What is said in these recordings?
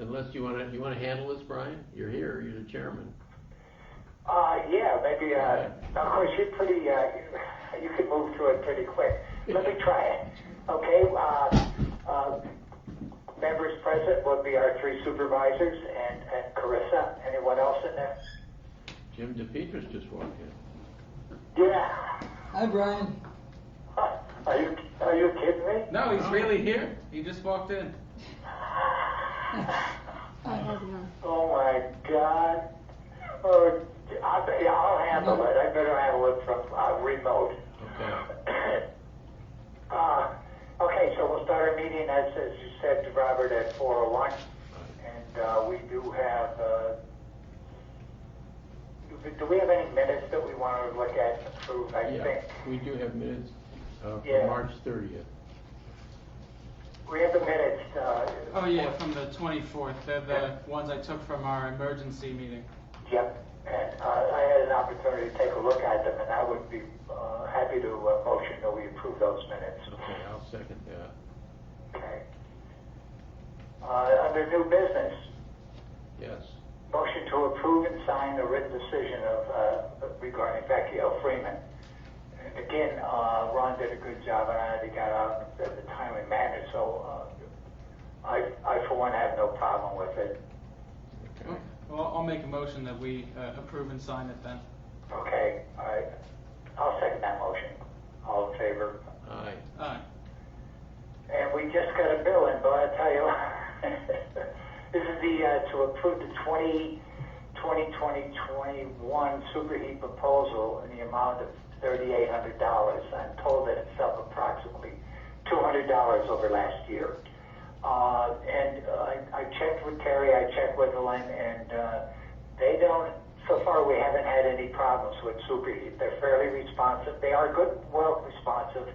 unless you wanna, you wanna handle this, Brian? You're here, you're the chairman. Uh, yeah, maybe, uh, of course, you're pretty, uh, you can move through it pretty quick. Let me try it. Okay, uh, uh, members present would be our three supervisors and, and Carissa. Anyone else in there? Jim DePietris just walked in. Yeah. Hi, Brian. Are you, are you kidding me? No, he's really here. He just walked in. I have none. Oh my God. Oh, I, yeah, I'll handle it. I better handle it from, uh, remote. Okay. Uh, okay, so we'll start our meeting as, as you said to Robert at four oh one. And, uh, we do have, uh, do- do we have any minutes that we want to look at and approve, I Yeah, think? we do have minutes, uh, Yeah. for March thirtieth. We have the minutes, uh. Oh yeah, from the 24th. They're the ones I took from our emergency meeting. Yep, and, uh, I had an opportunity to take a look at them and I would be, uh, happy to, uh, motion that we approve those minutes. Okay, I'll second that. Okay. Uh, under new business, Yes. motion to approve and sign the written decision of, uh, regarding Becky L. Freeman. And Again, uh, Ron did a good job, and I already got out at the time and manner, so, uh, I, I for one have no problem with it. Okay. Well, I'll make a motion that we uh, approve and sign it then. Okay, all right, I'll second that motion. All in favor? Aye. All right. And we just got a bill in, but I tell you, this is the, uh, to approve the 20, 2020-21 superheat proposal in the amount of $3,800. I'm told that it's up approximately $200 over last year. Uh, and uh, I, I checked with Terry, I checked with Elaine, and uh, they don't, so far we haven't had any problems with superheat. They're fairly responsive. They are good, well responsive.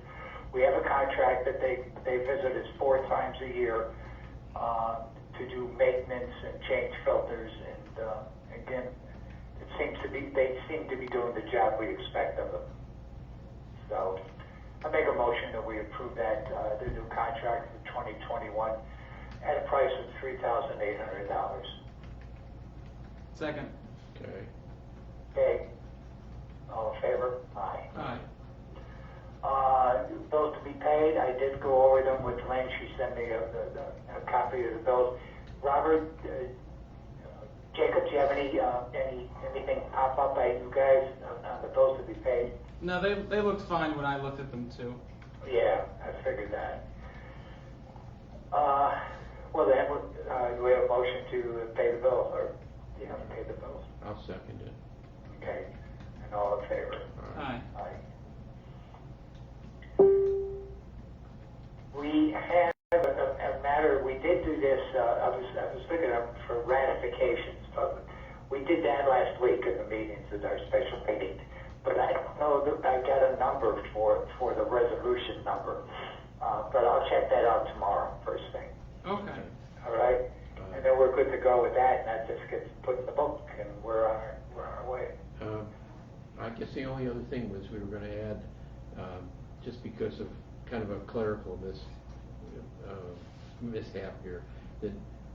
We have a contract that they, they visit us four times a year uh, to do maintenance and change filters. And uh, again, it seems to be, they seem to be doing the job we expect of them. So I make a motion that we approve that, uh, the new contract for 2021 at a price of $3,800. Second. Okay. Okay? All in favor? Aye. All right. Uh, bills to be paid, I did go over them with Lynn, she sent me a, a, a copy of the bills. Robert, uh, Jacob, do you have any, uh, any, anything pop up by you guys on, on the bills to be paid? No, they they looked fine when I looked at them too. Yeah, I figured that. Uh, well then, uh, do we have a motion to pay the bill, or, you know, pay the bills? I'll second it. Okay, and all in favor? All right. Aye. We have a, a a matter, we did do this, uh, I was, I was looking up for ratifications, but we did that last week in the meetings, at our special meeting. But I don't know, that I got a number for, for the resolution number, uh, but I'll check that out tomorrow, first thing, Okay. all right? And then we're good to go with that, and that just gets put in the book, and we're on, our- we're on our way. Um, I guess the only other thing was we were gonna add, um, just because of kind of a clerical mis, uh, mishap here, that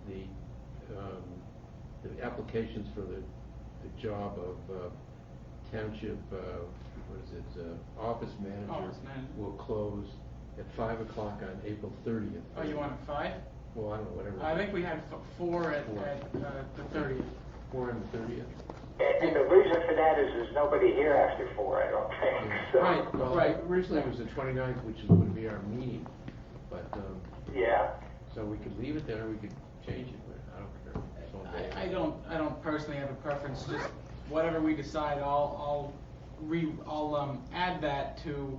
the, um, the applications for the, the job of uh, township, uh, what is it, uh, office manager Office manager. will close at five o'clock on April thirtieth. Oh, you want five? Well, I don't know, whatever. I think we had f- four at, Four. at uh, the 30th. Four and thirtieth. And the reason for that is there's nobody here after four, I don't think, so. Right. Well, originally it was the 29th, which is- would be our meeting, but, um, Yeah, so we could leave it there, we could change it, but I don't care. It's all day. I, I don't I don't personally have a preference. Just whatever we decide, I'll I'll re I'll um add that to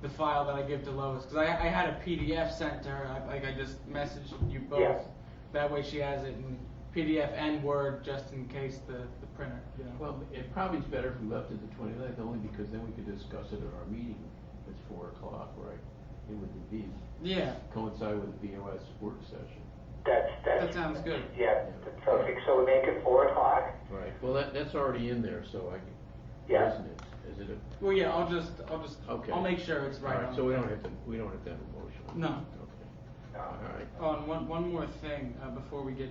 the file that I give to Lois because I I had a PDF sent to her. I, like I just messaged you both. Yes. That way she has it in PDF and Word just in case the the printer. You know. Well, it probably is better if we left it the 29th, only because then we could discuss it at our meeting at 4 o'clock, right? It would be, yeah. coincide with the VOS work session. that's, that's. That sounds good. Yeah, that's perfect, so we make it four o'clock, Right. Well, that, that's already in there, so I, can- Yeah. isn't it? Is it a? Well, yeah. I'll just I'll just Okay. I'll make sure it's right. All on. right, so we don't have to, we don't have to have a motion. No. Okay. All right. On one, one more thing, uh, before we get